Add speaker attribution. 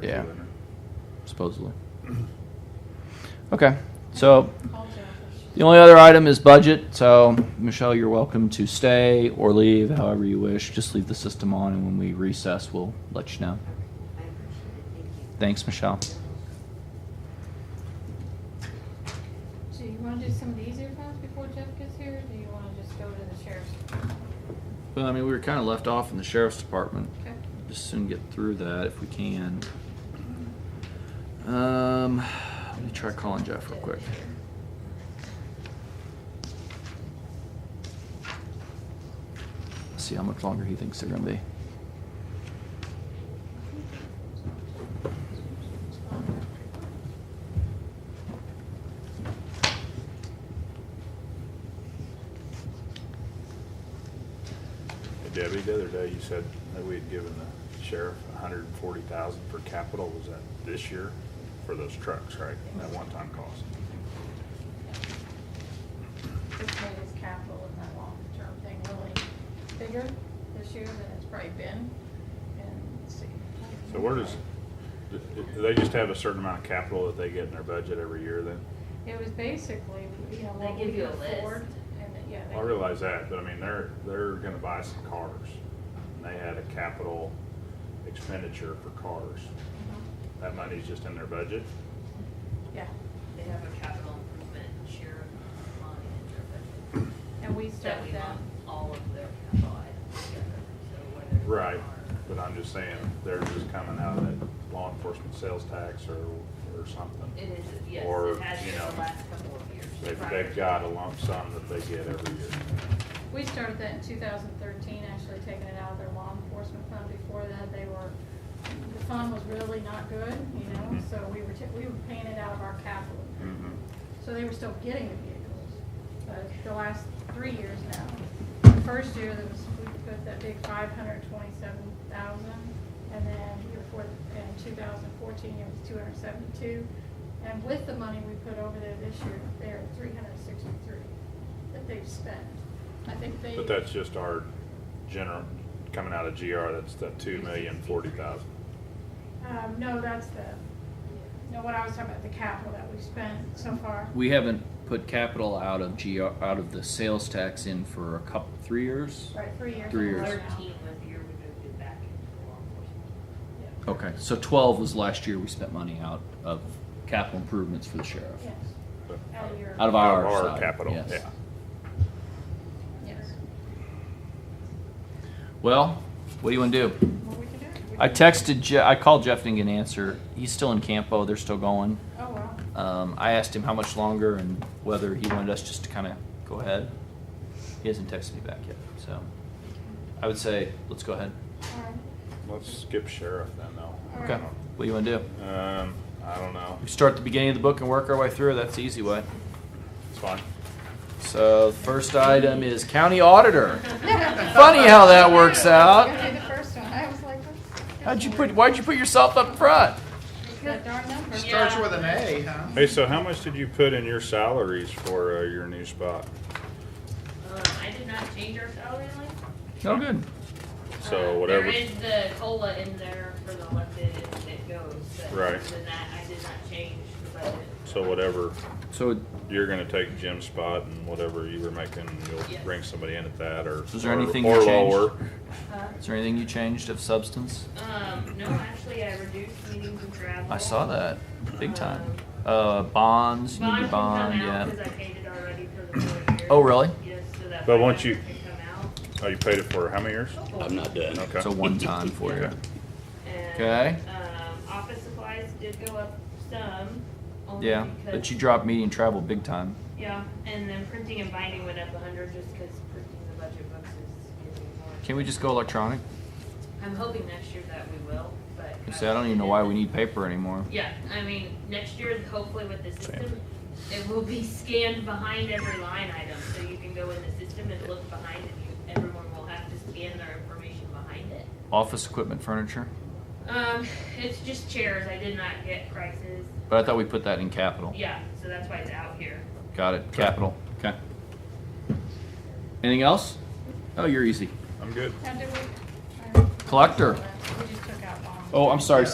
Speaker 1: or
Speaker 2: Yeah.
Speaker 1: doing it.
Speaker 2: supposedly. Okay, so the only other item is budget. So Michelle, you're welcome to stay or leave, however you wish. Just leave the system on, and when we recess, we'll let you know.
Speaker 3: I appreciate it, thank you.
Speaker 2: Thanks, Michelle.
Speaker 4: So you wanna do some of the easier ones before Jeff gets here, or do you wanna just go to the sheriff's?
Speaker 2: Well, I mean, we were kind of left off in the sheriff's department.
Speaker 4: Okay.
Speaker 2: Just soon get through that if we can. Um, let me try calling Jeff real quick. See how much longer he thinks they're gonna be.
Speaker 1: Hey, Debbie, the other day you said that we had given the sheriff a hundred and forty thousand for capital, was that this year? For those trucks, right, that one-time cost?
Speaker 4: This made his capital in that long-term thing really bigger this year than it's probably been, and let's see.
Speaker 1: So where does, do do they just have a certain amount of capital that they get in their budget every year then?
Speaker 4: It was basically, you know,
Speaker 3: They
Speaker 4: what
Speaker 3: give
Speaker 4: we
Speaker 3: you
Speaker 4: could
Speaker 3: a list.
Speaker 4: afford, and, then- yeah. they-
Speaker 1: I realize that, but I mean, they're, they're gonna buy some cars, and they had a capital expenditure for cars.
Speaker 4: Mhm.
Speaker 1: That money's just in their budget?
Speaker 4: Yeah,
Speaker 3: They have a capital improvement share of line in their budget.
Speaker 4: and we
Speaker 3: That we
Speaker 4: started that,
Speaker 3: lump all of their capital items together, so whether. they
Speaker 1: Right,
Speaker 3: are-
Speaker 1: but I'm just saying, they're just coming out of that law enforcement sales tax or, or something.
Speaker 3: It is, yes,
Speaker 1: Or,
Speaker 3: it has
Speaker 1: you
Speaker 3: been
Speaker 1: know,
Speaker 3: the last couple of years.
Speaker 1: They've,
Speaker 3: prior
Speaker 1: they've
Speaker 3: to-
Speaker 1: got a lump sum that they get every year.
Speaker 4: we started that in two thousand thirteen, actually taking it out of their law enforcement fund. Before that, they were, the fund was really not good, you know,
Speaker 1: Mhm.
Speaker 3: Mm-hmm.
Speaker 4: so we were, ta- we were paying it out of our capital. So they were still getting the vehicles, but the last three years now. The first year, there was, we put that big five hundred twenty-seven thousand, and then the year before, in two thousand fourteen, it was two hundred seventy-two. And with the money we put over there this year, they're at three hundred sixty-three that they've spent. I think they.
Speaker 1: But that's just our general, coming out of GR, that's the two million forty thousand.
Speaker 4: Um, no, that's the, no, what I was talking about, the capital that we've spent so far.
Speaker 2: We haven't put capital out of GR, out of the sales tax in for a couple, three years?
Speaker 4: Right, three years.
Speaker 2: Three
Speaker 4: in a row
Speaker 2: years.
Speaker 4: now.
Speaker 3: Thirteen was the year we moved it back into law enforcement.
Speaker 2: Okay, so twelve was last year we spent money out of capital improvements for the sheriff.
Speaker 4: Yes, out of your.
Speaker 2: Out of our
Speaker 1: Our
Speaker 2: side,
Speaker 1: capital,
Speaker 2: yes.
Speaker 1: yeah.
Speaker 4: Yes.
Speaker 2: Well, what do you wanna do?
Speaker 4: Well, we can do it. We
Speaker 2: I
Speaker 4: can-
Speaker 2: texted Je- I called Jeff and didn't get an answer. He's still in Campo. They're still going.
Speaker 4: Oh, wow.
Speaker 2: Um, I asked him how much longer and whether he wanted us just to kind of go ahead. He hasn't texted me back yet, so I would say let's go ahead.
Speaker 4: All right.
Speaker 1: Let's skip sheriff then though.
Speaker 2: Okay. What do you want to do?
Speaker 1: Um, I don't know,
Speaker 2: We start at the beginning of the book and work our way through. That's the easy way.
Speaker 1: it's fine.
Speaker 2: So the first item is county auditor. Funny how that works
Speaker 4: It's
Speaker 2: out.
Speaker 4: gonna be the first one. I was like, what's?
Speaker 2: How'd you put? Why'd you put yourself up front?
Speaker 4: That darn number.
Speaker 5: Starts with an A, huh?
Speaker 1: Hey, so how much did you put in your salaries for uh, your new spot?
Speaker 3: Um, I did not change our salary line.
Speaker 2: No good.
Speaker 1: So
Speaker 3: Uh,
Speaker 1: whatever.
Speaker 3: There is the cola in there for the elected that goes, but
Speaker 1: Right.
Speaker 3: other than that, I did not change the budget.
Speaker 1: So whatever,
Speaker 2: So
Speaker 1: you're gonna take Jim's spot and whatever you were making, you'll
Speaker 3: Yes.
Speaker 1: bring somebody in at that or.
Speaker 2: Is there
Speaker 1: or-
Speaker 2: anything
Speaker 1: or
Speaker 2: you changed?
Speaker 1: lower.
Speaker 3: Huh?
Speaker 2: is there anything you changed of substance?
Speaker 3: Um, no, actually, I reduced meetings and travel.
Speaker 2: I saw that big time. Uh, bonds, you need
Speaker 3: Bond
Speaker 2: a
Speaker 3: can come
Speaker 2: bond,
Speaker 3: out
Speaker 2: yeah.
Speaker 3: because I paid it already for the full year.
Speaker 2: Oh, really?
Speaker 3: Yes, so that.
Speaker 1: But
Speaker 3: my
Speaker 1: once you-
Speaker 3: number can come
Speaker 1: Oh, you paid it for how many years?
Speaker 3: out.
Speaker 6: I'm not done.
Speaker 1: Okay.
Speaker 2: It's a one time for you.
Speaker 1: Okay.
Speaker 3: And,
Speaker 2: Okay.
Speaker 3: Um, office supplies did go up some. only
Speaker 2: Yeah,
Speaker 3: because-
Speaker 2: but you dropped meeting travel big time.
Speaker 3: Yeah, and then printing and binding went up a hundred just because printing the budget books is getting more.
Speaker 2: Can we just go electronic?
Speaker 3: I'm hoping next year that we will, but.
Speaker 2: You say, I don't even know why we need paper anymore.
Speaker 3: Yeah, I mean, next year, hopefully with the system, it will be scanned behind every line item, so you can go in the system and look behind it. You- Everyone will have to scan their information behind it.
Speaker 2: Office equipment, furniture,
Speaker 3: Um, it's just chairs, I did not get prices,
Speaker 2: but I thought we put that in capital.
Speaker 3: yeah, so that's why it's out here.
Speaker 2: Got it, capital. Okay. Anything else? Oh, you're easy.
Speaker 1: I'm good.
Speaker 4: How did we? I-
Speaker 2: Collector.
Speaker 4: We just took out bonds.
Speaker 2: Oh, I'm sorry.